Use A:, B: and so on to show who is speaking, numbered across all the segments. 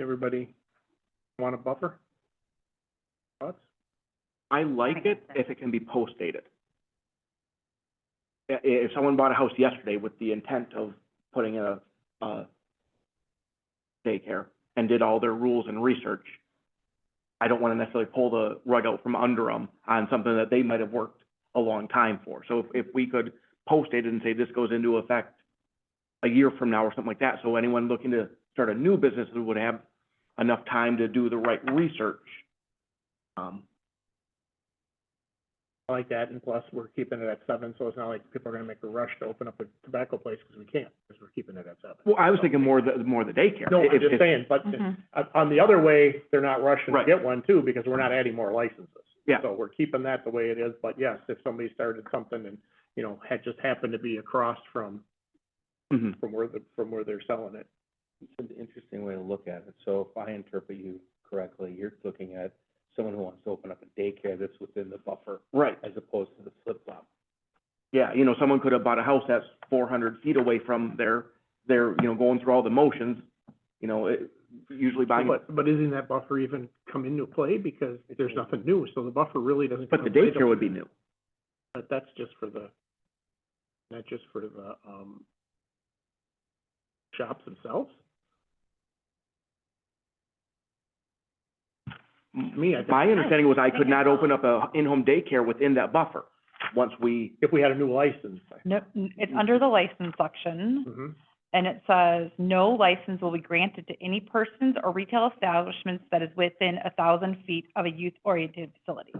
A: Everybody want a buffer? Thoughts?
B: I like it if it can be post-dated. I- i- if someone bought a house yesterday with the intent of putting in a, a daycare and did all their rules and research, I don't wanna necessarily pull the rug out from under them on something that they might have worked a long time for. So if, if we could post it and say this goes into effect a year from now or something like that, so anyone looking to start a new business would have enough time to do the right research. Um,
A: I like that, and plus, we're keeping it at seven, so it's not like people are gonna make a rush to open up a tobacco place, because we can't, because we're keeping it at seven.
B: Well, I was thinking more the, more the daycare.
A: No, I'm
B: If-
A: just
B: if-
A: saying, but uh, on the other way, they're not rushing to
B: Right.
A: get one too, because we're not adding more licenses.
B: Yeah.
A: So we're keeping that the way it is, but yes, if somebody started something and, you know, had just happened to be across from,
B: mhm.
A: from where the, from where they're selling it.
C: It's an interesting way to look at it. So if I interpret you correctly, you're looking at someone who wants to open up a daycare that's within the buffer
B: Right,
C: as opposed to the flip-flop.
B: yeah, you know, someone could have bought a house that's four hundred feet away from their, their, you know, going through all the motions, you know, it, usually buying.
A: But, but isn't that buffer even come into play, because there's nothing new, so the buffer really doesn't.
B: But
A: come
B: the
A: into play till-
B: daycare would be new.
A: But that's just for the, not just for the, um, shops themselves? me, I think-
B: My understanding was I could not open up a in-home daycare within that buffer, once we,
A: If we had a new license.
D: No, n- it's under the license section,
A: Mm-hmm.
D: and it says, "No license will be granted to any persons or retail establishments that is within a thousand feet of a youth-oriented facility."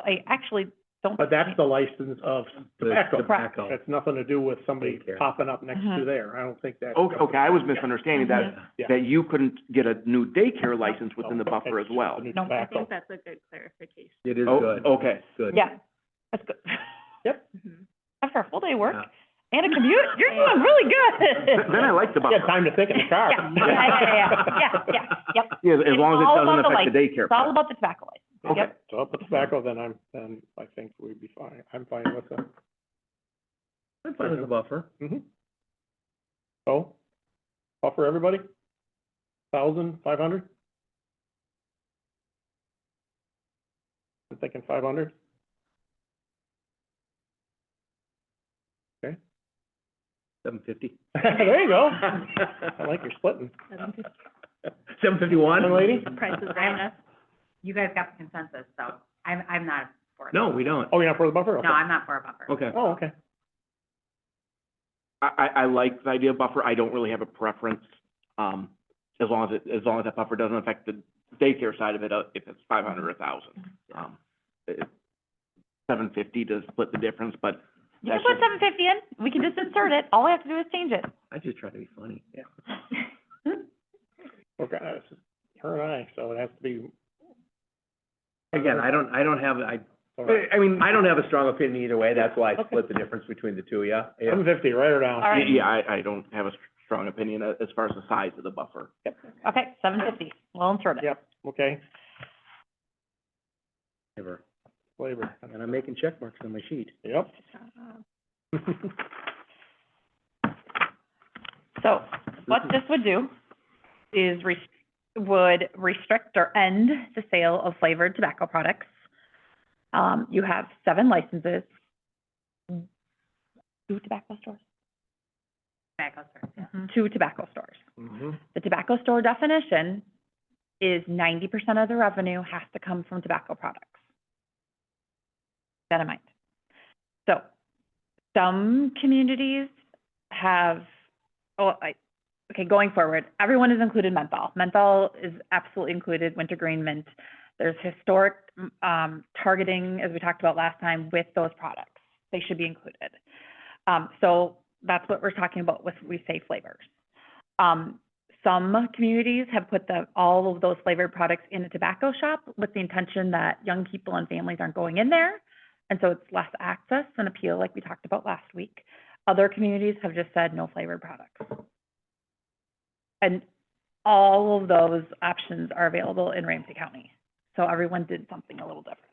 D: I actually don't.
A: But that's the license of tobacco.
C: tobacco.
A: That's nothing to do with somebody
C: Daycare.
A: popping up next to
D: Mhm.
A: there. I don't think that.
B: Oh, okay, okay, I was misunderstanding that,
A: Yeah.
B: that you couldn't get a new daycare license within the
A: No,
B: buffer as
A: that's just
B: well.
A: the new
D: No, I
E: I
A: tobacco.
E: think that's a good clarification.
C: It is
B: Oh,
C: good.
B: okay.
C: Good.
D: Yeah, that's good.
E: Mhm.
D: After a full day of work
C: Yeah.
D: and a commute, you're doing really
B: Then
D: good.
B: I like the
A: You
B: buffer.
A: got time to think in the car.
D: Yeah, yeah, yeah, yeah, yeah, yeah, yep.
B: Yeah, as long as
D: It's all
B: it doesn't
D: about the
B: affect the daycare.
D: It's all
B: part.
D: about the tobacco license.
B: Okay.
D: yep.
A: So up with tobacco, then I'm, then I think we'd be fine. I'm fine with that.
C: I'm fine with the buffer.
A: Mm-hmm. So, offer everybody? Thousand, five hundred? I'm thinking five hundred.
C: Seven fifty.
A: There you go. I like your splitting.
C: Seven fifty-one?
A: Young lady?
E: Price is right enough.
F: you guys got the consensus, so I'm, I'm not for it.
C: No, we don't.
A: Oh, you're not for the buffer? Okay.
F: No, I'm not for a buffer.
C: Okay.
A: Oh, okay.
B: I, I, I like the idea of buffer, I don't really have a preference, um, as long as it, as long as that buffer doesn't affect the daycare side of it, uh, if it's five hundred or a thousand. Um, seven fifty does split the difference, but
D: You can
B: That's
D: put
B: just-
D: seven fifty in, we can just insert it, all I have to do is change it.
C: I just try to be funny.
A: Okay, it's Uh, her and I, so it has to be.
C: Again, I don't, I don't have, I,
A: All right.
C: I mean, I don't have a strong opinion either way. That's why I
A: Okay.
C: split the difference between the two, yeah? Yeah.
A: Seven fifty, write her down.
D: All right.
B: yeah, I, I don't have a strong opinion a- as far as the size of the buffer.
D: Okay, seven fifty, we'll insert it.
A: Yep, okay,
C: Whatever.
A: flavor,
C: And I'm making check marks on my sheet.
A: yep.
D: So what this would do is res- would restrict or end the sale of flavored tobacco products. Um, you have seven licenses. Two tobacco stores?
F: Tobacco stores, yeah.
D: Two tobacco stores.
A: Mm-hmm.
D: The tobacco store definition is ninety percent of the revenue has to come from tobacco products. Keep That in mind. So, some communities have, oh, I, okay, going forward, everyone is included menthol. Menthol is absolutely included, wintergreen mint. There's historic, um, targeting, as we talked about last time, with those products. They should be included. Um, so that's what we're talking about with, we say flavors. Um, some communities have put the, all of those flavored products in a tobacco shop with the intention that young people and families aren't going in there. And so it's less access and appeal, like we talked about last week. Other communities have just said no flavored products. And all of those options are available in Ramsey County. So everyone did something a little different.